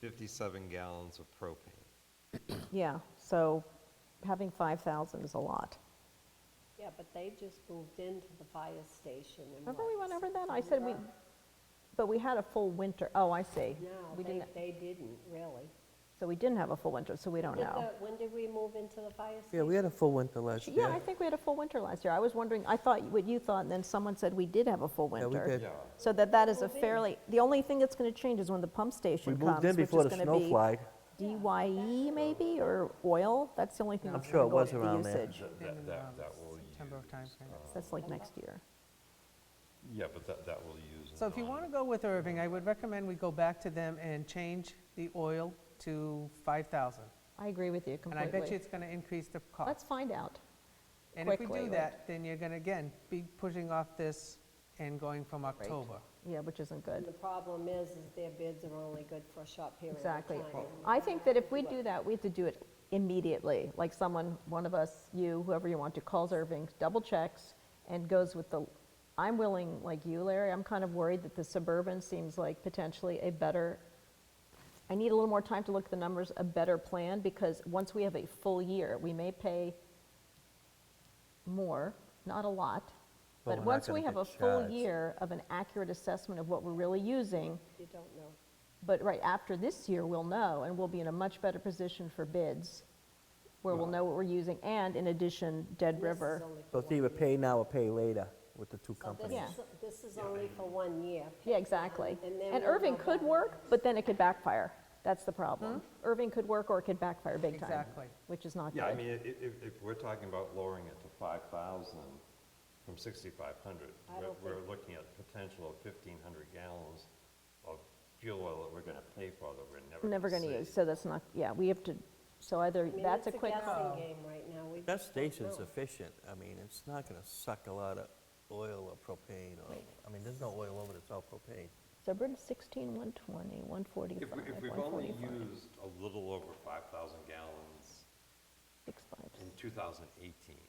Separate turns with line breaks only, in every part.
2,657 gallons of propane.
Yeah, so having 5,000 is a lot.
Yeah, but they just moved into the fire station and
Remember we went
what's-
over that? I said we, but we had a full winter, oh, I see.
No,
We
they,
didn't,
they didn't, really.
so we didn't have a full winter, so we don't
Did
know.
the- When did we move into the fire station?
Yeah, we had a full winter last year.
Yeah, I think we had a full winter last year. I was wondering, I thought what you thought, and then someone said we did have a full
Yeah,
winter.
we did.
So that that is a fairly, the only thing that's going to change is when the pump
We
station comes,
moved in
which is
before the
going
snow
to
flag.
be DYE maybe, or oil, that's the only thing
I'm
that's
sure
going
it
to go up the
was around there.
usage.
in
That, that,
around
that will
September
use, uh,
timeframe.
That's like next year.
yeah, but that, that will use.
So if you
non-
want to go with Irving, I would recommend we go back to them and change the oil to 5,000.
I agree with you
And
completely.
I bet you it's going to increase the
Let's
cost.
find out.
And if we
quickly,
do
right.
that, then you're going to, again, be pushing off this and going from October.
Yeah, which isn't
And
good.
the problem is, is their bids are only good for a short period of time.
Exactly.
and
I think that if we do that, we have to do it immediately. Like someone, one of us, you, whoever you want to, calls Irving, double checks, and goes with the, I'm willing, like you, Larry, I'm kind of worried that the suburban seems like potentially a better, I need a little more time to look at the numbers, a better plan, because once we have a full year, we may pay more, not a lot, but
But we're not
once
gonna
we have
get
a full
charged.
year of an accurate assessment of what we're really using,
You don't know.
but right after this year, we'll know, and we'll be in a much better position for bids, where we'll know what we're using, and in addition, Dead
And this is
River.
only for
So it's
one
either
year.
pay now or pay later with the two
So
companies.
Yeah.
this is, this is only for one year.
Yeah, exactly.
And then
And
we'll
Irving
go
could
back.
work, but then it could backfire. That's the problem. Irving could work, or it could backfire big time.
Exactly.
Which is not good.
Yeah, I mean, i- i- if, if we're talking about lowering it to 5,000 from 6,500,
I
we're-
don't
we're
think-
looking at potential of 1,500 gallons of fuel oil that we're going to pay for that we're never
Never
going to
use, so that's not, yeah, we have to, so either,
I mean,
that's a
it's
quick.
guessing game right now. We
That
just don't
station's
know.
efficient. I mean, it's not going to suck a lot of oil or propane or, I mean, there's no oil over it, it's all propane.
So we're at 16, 120, 145,
If we- if we've only
145,
used a little over 5,000 gallons
65.
in 2018,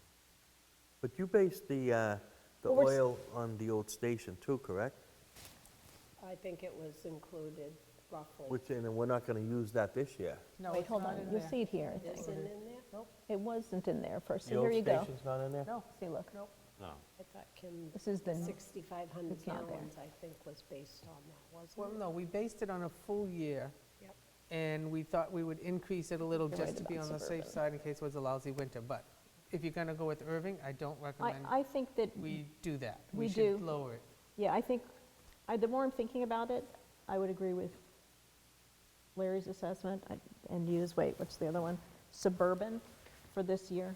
But you based the, uh, the
Well, we're s-
oil on the old station too, correct?
I think it was included roughly.
Which, and then we're not going to use that this year.
No,
Wait,
it's
hold
not
on,
in
you'll
there.
see it here, I
Is
think.
it in there?
It wasn't in there first, so here you go.
The old station's not in there?
No.
See, look,
no.
I thought Kim,
this is the,
6,500
It's not there.
gallons, I think, was based on that,
Well,
wasn't it?
no, we based it on a full year,
Yep.
and we thought we would increase it a little
You're
just
right
to be
about
on the safe
Suburban.
side in case it was a lousy winter. But if you're going to go with Irving, I don't
I,
recommend
I think that,
we do that.
we do.
should lower it.
yeah, I think, I, the more I'm thinking about it, I would agree with Larry's assessment I- and use, wait, what's the other one? Suburban for this year.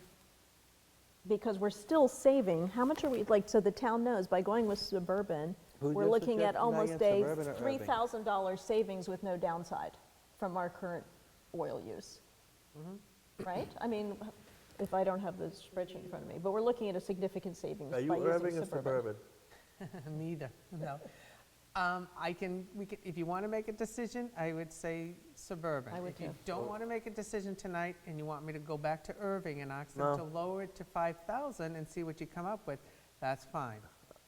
Because we're still saving, how much are we, like, so the town knows, by going with suburban,
Who
we're
did
looking
suggest-
at
now
almost
you're
a
Suburban or Irving?
$3,000 savings with no downside from our current oil use.
Mm-hmm.
Right? I mean, if I don't have the spreadsheet in front of me, but we're looking at a significant savings by
Are
using
you Irving or
suburban.
suburban?
Neither, no. Um, I can, we can, if you want to make a decision, I would say suburban.
I would
If you
too.
don't want to make a decision tonight and you want me to go back to Irving and ask
No.
them to lower it to 5,000 and see what you come up with, that's fine.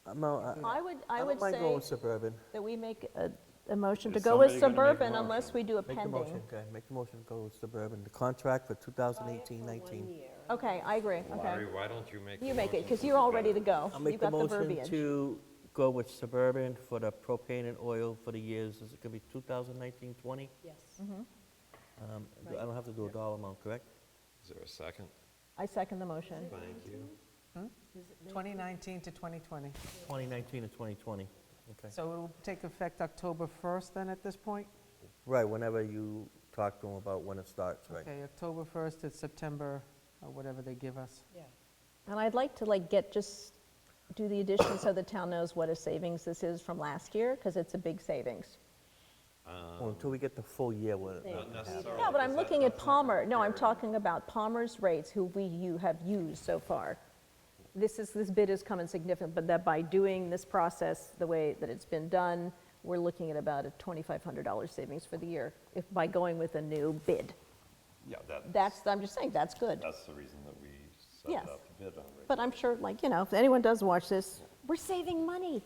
Uh, No, I-
I would, I
I
would
don't mind going
say
suburban.
that we make a, a motion to
Is
go with
somebody gonna make a
suburban unless
motion?
we do a
Make the motion,
pending.
okay, make the motion, to go with suburban, the contract for
Buy it for
2018,
one
19.
year.
Okay, I agree, okay.
Larry, why don't you make the
You make it,
motion
because
to
you're all
suburban?
ready to go.
I'll
You've
make the
got
motion
verbiage.
to go with Suburban for the propane and oil for the years, is it gonna be 2019, 20?
Yes.
Mm-hmm.
Um, I don't have to do a dollar amount, correct?
Is there a second?
I second the motion.
Thank you.
2019 to 2020.
2019 and 2020, okay.
So it'll take effect October 1st then at this point?
Right, whenever you talk to them about when it starts, right?
Okay, October 1st to September, or whatever they give us.
Yeah.
And I'd like to like get, just do the addition so the town knows what a savings this is from last year, because it's a big savings.
Well, Until we get the full year with it.
Not necessarily.
Yeah, but
because
I'm
that-
looking at
that's not
Palmer, no, I'm
prepared.
talking about Palmer's rates, who we, you have used so far. This is, this bid is coming significant, but that by doing this process, the way that it's been done, we're looking at about a $2,500 savings for the year, if, by going with a new bid.
Yeah, that-
That's, I'm just saying, that's good.
That's the reason that we set
Yes.
it up to bid on.
But I'm sure, like, you know, if anyone does watch this, we're saving money.